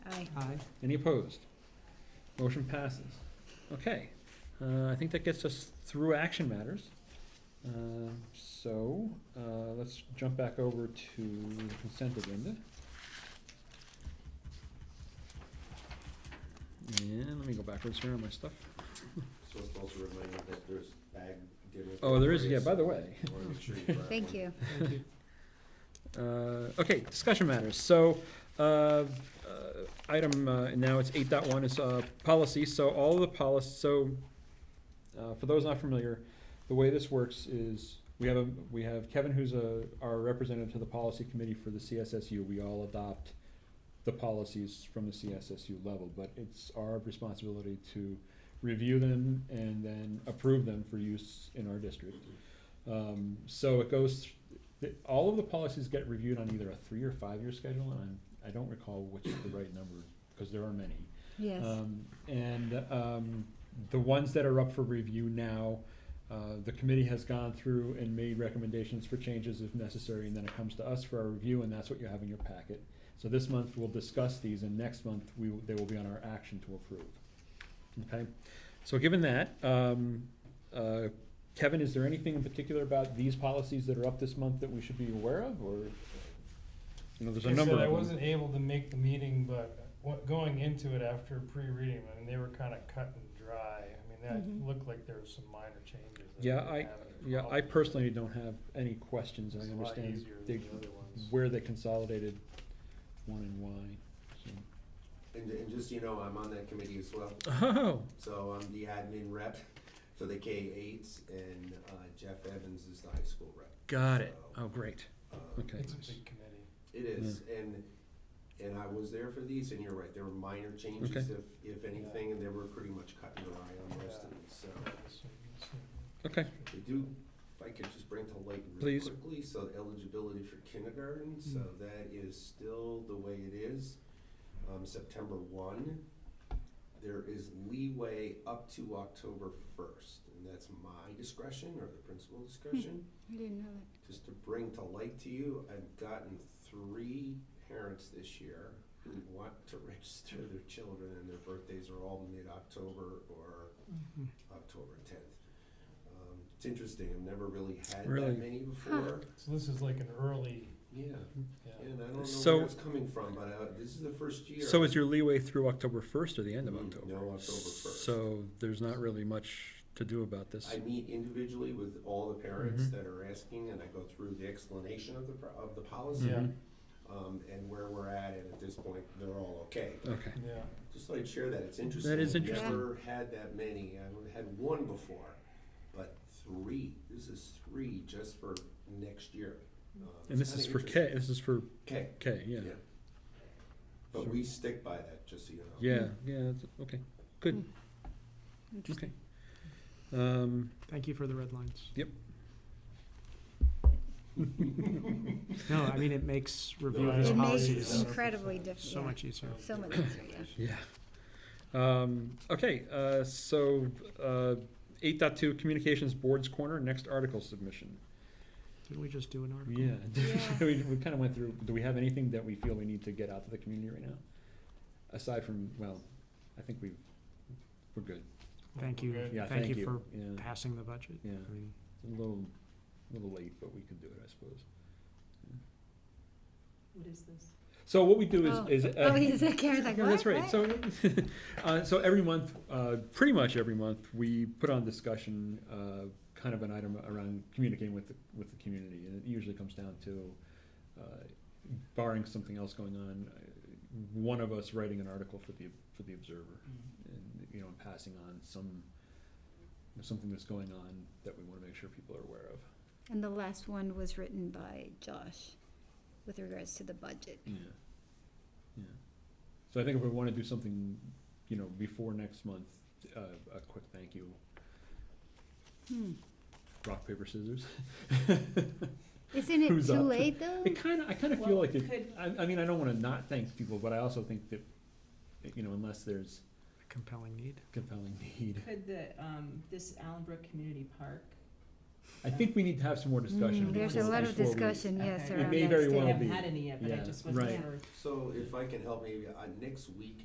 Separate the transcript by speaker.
Speaker 1: Aye.
Speaker 2: Any opposed? Motion passes. Okay, uh, I think that gets us through action matters. Um, So, uh, let's jump back over to the consent agenda. And let me go backwards here on my stuff.
Speaker 3: So it's also reminded that there's bag dinner.
Speaker 2: Oh, there is, yeah, by the way.
Speaker 4: Thank you.
Speaker 1: Thank you.
Speaker 2: Uh, Okay, discussion matters. So, uh, uh, item, uh, now it's eight point one is uh, policy, so all of the policy, so uh, for those not familiar, the way this works is, we have, a we have Kevin, who's a, our representative to the policy committee for the CSSU. We all adopt the policies from the CSSU level, but it's our responsibility to review them and then approve them for use in our district. Um, So it goes the- all of the policies get reviewed on either a three or five-year schedule, and I'm, I don't recall which is the right number, because there are many.
Speaker 4: Yes.
Speaker 2: Um, And um, the ones that are up for review now, uh, the committee has gone through and made recommendations for changes if necessary, and then it comes to us for our review, and that's what you have in your packet. So this month, we'll discuss these, and next month, we, will- they will be on our action to approve. Okay, so given that, um, uh, Kevin, is there anything in particular about these policies that are up this month that we should be aware of, or? You know, there's a
Speaker 5: Like I
Speaker 2: number
Speaker 5: said,
Speaker 2: of
Speaker 5: I
Speaker 2: them.
Speaker 5: wasn't able to make the meeting, but what, going into it after pre-reading, them, I mean, they were kinda cut and dry. I mean,
Speaker 4: Mhm.
Speaker 5: that looked like there was some minor changes. that
Speaker 2: Yeah,
Speaker 5: didn't
Speaker 2: I-
Speaker 5: have any
Speaker 2: Yeah, I
Speaker 5: problem.
Speaker 2: personally don't have any questions, I
Speaker 5: It's a lot
Speaker 2: understand
Speaker 5: easier
Speaker 2: they,
Speaker 5: than the other ones.
Speaker 2: where they consolidated one and why, so.
Speaker 3: And, and just, so you know, I'm on that committee as well,
Speaker 2: Oh,
Speaker 3: so I'm the admin rep for the K eights, and uh, Jeff Evans is the high school rep.
Speaker 2: got it,
Speaker 3: So,
Speaker 2: oh, great,
Speaker 3: um,
Speaker 2: okay.
Speaker 5: It's a big committee.
Speaker 3: It is, and, and I was there for these, and you're right, there were minor changes, if, if anything, and they were pretty much cut and dry on most of these, so.
Speaker 2: Okay,
Speaker 3: They do, if I could just bring to light really
Speaker 2: Please.
Speaker 3: quickly, so eligibility for kindergarten, so that is still the way it is. Um, September one, there is leeway up to October first, and that's my discretion or the principal discretion.
Speaker 4: I didn't know that.
Speaker 3: Just to bring to light to you, I've gotten three parents this year who want to register their children, and their birthdays are all mid-October or
Speaker 1: Mhm.
Speaker 3: October tenth. Um, it's interesting, I've never really had
Speaker 2: Really?
Speaker 3: that many before.
Speaker 5: So this is like an early,
Speaker 3: Yeah,
Speaker 5: yeah.
Speaker 3: and I don't know
Speaker 2: So-
Speaker 3: where it's coming from, but uh, this is the first year.
Speaker 2: so is your leeway through October first or the end of
Speaker 3: Mm,
Speaker 2: October?
Speaker 3: No, October first.
Speaker 2: So there's not really much to do about this,
Speaker 3: I meet individually with all the parents
Speaker 2: Mhm.
Speaker 3: that are asking, and I go through the explanation of the, pro- of the policy,
Speaker 5: Yeah,
Speaker 2: Mhm.
Speaker 3: um, and where we're at, and at this point, they're all okay.
Speaker 2: okay,
Speaker 5: yeah.
Speaker 3: Just thought I'd share that, it's interesting.
Speaker 2: is
Speaker 3: I've
Speaker 2: interesting.
Speaker 3: Never had that many, I've had one before, but three, this is three just for next year. Um,
Speaker 2: and
Speaker 3: it's
Speaker 2: this is
Speaker 3: kinda
Speaker 2: for
Speaker 3: interesting.
Speaker 2: K, this is for
Speaker 3: Okay,
Speaker 2: K, yeah,
Speaker 3: yeah. But we stick by that, just so you know.
Speaker 2: yeah, yeah, that's- okay, good,
Speaker 4: Interesting.
Speaker 2: okay. Um,
Speaker 1: Thank you for the red lines.
Speaker 2: Yep.
Speaker 1: No, I mean, it makes review of
Speaker 3: I
Speaker 1: these
Speaker 4: It
Speaker 3: know.
Speaker 4: makes
Speaker 3: Policy
Speaker 4: it
Speaker 1: policies
Speaker 3: is-
Speaker 4: incredibly
Speaker 1: so
Speaker 4: difficult.
Speaker 1: much easier.
Speaker 4: So much easier, yeah.
Speaker 2: Yeah. Um, okay, uh, so, uh, eight dot two, Communications Board's Corner, next article submission.
Speaker 1: Didn't we just do an article?
Speaker 2: Yeah,
Speaker 4: Yeah.
Speaker 2: we, we kinda went through, do we have anything that we feel we need to get out to the community right now? Aside from, well, I think we, we're good.
Speaker 1: Thank you.
Speaker 5: We're good.
Speaker 2: Yeah,
Speaker 1: Thank you for
Speaker 2: Yeah,
Speaker 1: Passing the budget.
Speaker 2: Yeah.
Speaker 1: I mean,
Speaker 2: a little, little late, but we can do it, I suppose.
Speaker 6: What is this?
Speaker 2: So what we do is,
Speaker 4: Oh.
Speaker 2: is. uh,
Speaker 4: Oh, he's like, Karen's like,
Speaker 2: Yeah, That's
Speaker 4: "What?
Speaker 2: right. So, uh, so every month, uh, pretty much every month, we put on discussion, uh, kind of an item around communicating with, the with the community. And it usually comes down to, uh, barring something else going on, uh, one of us writing an article for the, for the Observer. And, you know, and passing on some, something that's going on that we wanna make sure people are aware of.
Speaker 4: And the last one was written by Josh with regards to the budget.
Speaker 2: Yeah, yeah. So I think if we wanna do something, you know, before next month, uh, a quick thank you,
Speaker 4: Hmm.
Speaker 2: rock, paper, scissors.
Speaker 4: Isn't it
Speaker 2: Who's
Speaker 4: too
Speaker 2: up?
Speaker 4: late, though?
Speaker 2: It kinda, I kinda feel
Speaker 6: Well,
Speaker 2: like it,
Speaker 6: could-
Speaker 2: I, I mean, I don't wanna not thank people, but I also think that, you know, unless there's
Speaker 1: a compelling need.
Speaker 2: compelling need.
Speaker 6: Could the, um, this Allenbrook Community Park,
Speaker 2: I think we need to have some more discussion.
Speaker 4: Mm, There's a
Speaker 2: before-
Speaker 4: lot of
Speaker 2: before we-
Speaker 4: discussion, yes,
Speaker 6: Okay. It
Speaker 4: around that
Speaker 2: may very
Speaker 6: we
Speaker 2: well
Speaker 4: statement.
Speaker 6: haven't
Speaker 2: be.
Speaker 6: had any yet, but I
Speaker 2: Yeah,
Speaker 6: just wasn't
Speaker 2: right.
Speaker 6: sure.
Speaker 3: So if I can help, maybe, uh, next week